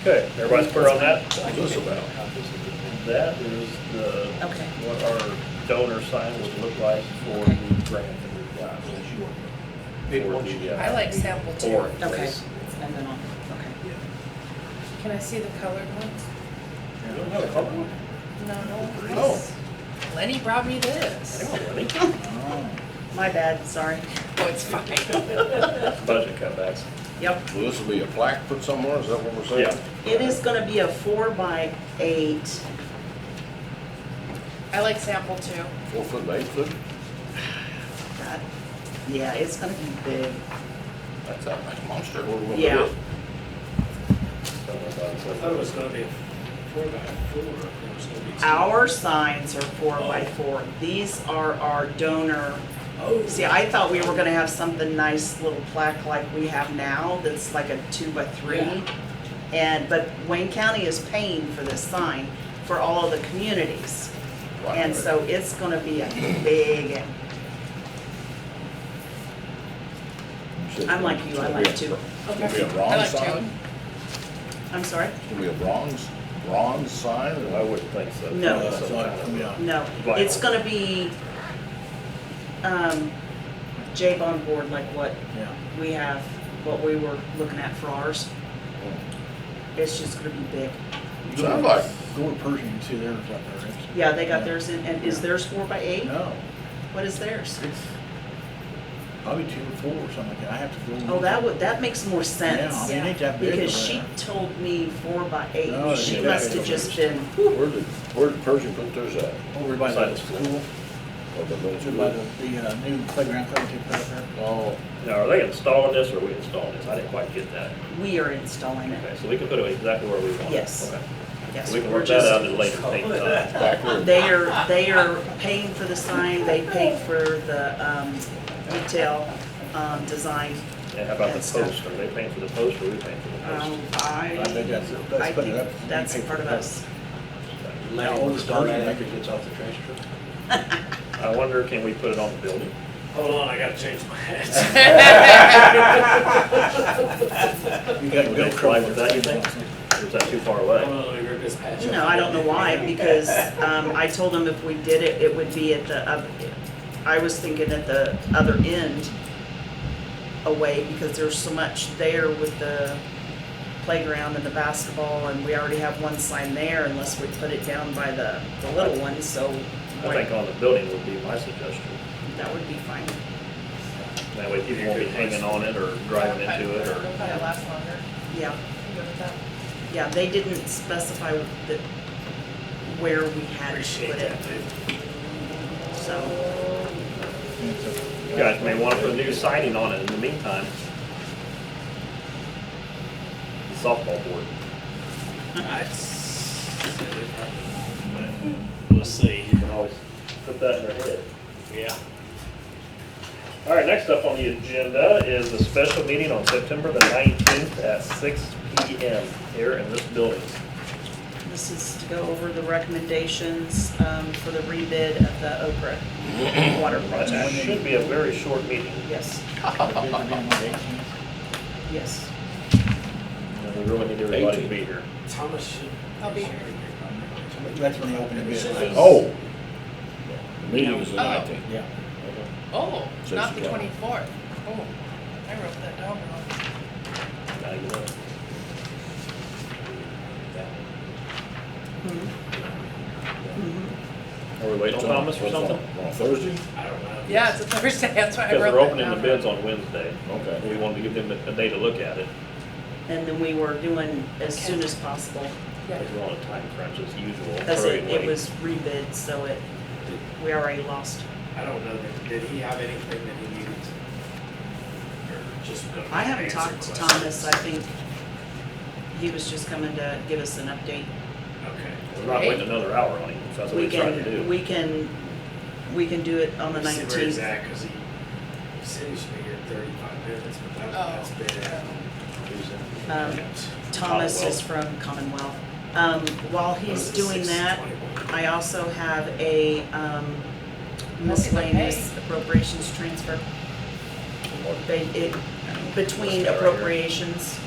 Okay, everybody's clear on that? What's this about? That is the, Okay. what our donor sign would look like for the grant that we've got. Maybe once you- For the, uh, I like sample two. Orange. Okay. Yes. And then I'll, okay. Can I see the colored ones? You don't have a color one? No, no. Oh. Lenny brought me this. Hang on, Lenny. My bad, sorry. Oh, it's fine. Budget cutbacks. Yep. Will this be a plaque put somewhere, is that what we're saying? Yeah. It is gonna be a four by eight. I like sample two. Four foot, by eight foot? God, Yeah, it's gonna be big. That's a nice monster. What are we gonna do? Yeah. I thought it was gonna be a four by four, it was gonna be. two. Our signs are four by four. These are our donor. Oh. See, I thought we were gonna have something nice, little plaque like we have now, that's like a two by three. Yeah. And, but Wayne County is paying for this sign for all of the communities. Right. And so it's gonna be a big, I'm like you, I like two. It's gonna be a I bronze like two. sign? I'm sorry? It's gonna be a bronze, bronze sign? I wouldn't think so. No. That's some kind of- No, Vinyl. it's gonna be, um, Jape on board, like what we have, what we were looking at for ours. Oh. It's just gonna be big. Sounds like, Door Pershing too, they're up there. Yeah, they got theirs in, and is theirs four by eight? No, What is Mm-hmm. theirs? it's probably two or four or something like that. I have to go. and Oh, look. that would, that makes more Yeah, I sense. mean, it ain't that big. Because over she there. told me four by No, eight. it's She okay. must have just been, where did, where did Pershing put theirs at? Over by Side the of school. school, Or the over military? by the, the uh, new playground club they put up there. Oh, Now, are they installing this or are we installing this? I didn't quite get that. we are installing it, Okay, so we can put it exactly where we want it. Yes. Okay. yes. We can we're work that just- out at a later date. uh, back room. They are, they are paying for the sign, they paid for the um, detail um, design. And how about the That's tough. post? Are they paying for the post or are we paying for the post? Um, I, I think that's- that's I put it think up, you that's pay for part of that. us. Lenny How old was is done that Pershing? after he gets off the trash truck. I wonder, can we put it on the building? Hold on, I gotta change my hat. You got to Would go. they fly with that, you think? Or is that too far Hold away? on, let me rip this patch off. No, I don't know why, because um, I told them if we did it, it would be at the, oth- I was thinking at the other end away, because there's so much there with the playground and the basketball, and we already have one sign there unless we put it down by the, the little one, so I think on the building would be my suggestion. that would be fine. That way people won't be hanging on it or driving into it It'll or. probably last longer. Yeah, I'm good with that. yeah, they didn't specify the, where we had to Appreciate put it, that, dude. so, You guys may want to put a new signing on it in the meantime. The Softball board. I'd say they probably won't, but We'll see, You can always put that in their head. yeah. All right, next up on the agenda is a special meeting on September the 19th at 6 PM here in this building. this is to go over the recommendations um, for the rebid of the Okra water That project. should be a very short meeting. Yes, yes. We really need everybody to be here. Thomas should. I'll be here. That's when they open the bid. right? Oh. The meeting is the nineteenth. Yeah. Oh, Says not the what? twenty-fourth. Oh, I wrote that down wrong. Now you know. Mm-hmm. Are we waiting on Thomas or something? On Thursday? I don't know. Yeah, it's a Thursday, that's why I Because wrote they're that down. opening the bids on Wednesday. Okay. We wanted to give them a a day to look at it. And then we were doing as soon as possible, Because we're on a time crunch as usual. because Hurry it and it wait. was rebid, so it, we already lost. I don't know, that- did he have anything that he needed? Or just gonna I haven't answer talked to questions? Thomas, I think he was just coming to give us an update. Okay. We're not waiting another hour on him, so that's what We we tried to can, do. we can, we can do it on the See where nineteenth. he's at, 'cause he, he said he should be here in thirty-five minutes, but that, Oh. that's bad. Um, Thomas is from Commonwealth. Um, while he's doing that, I also have a, um, miscellaneous appropriations transfer. They, it, between appropriations.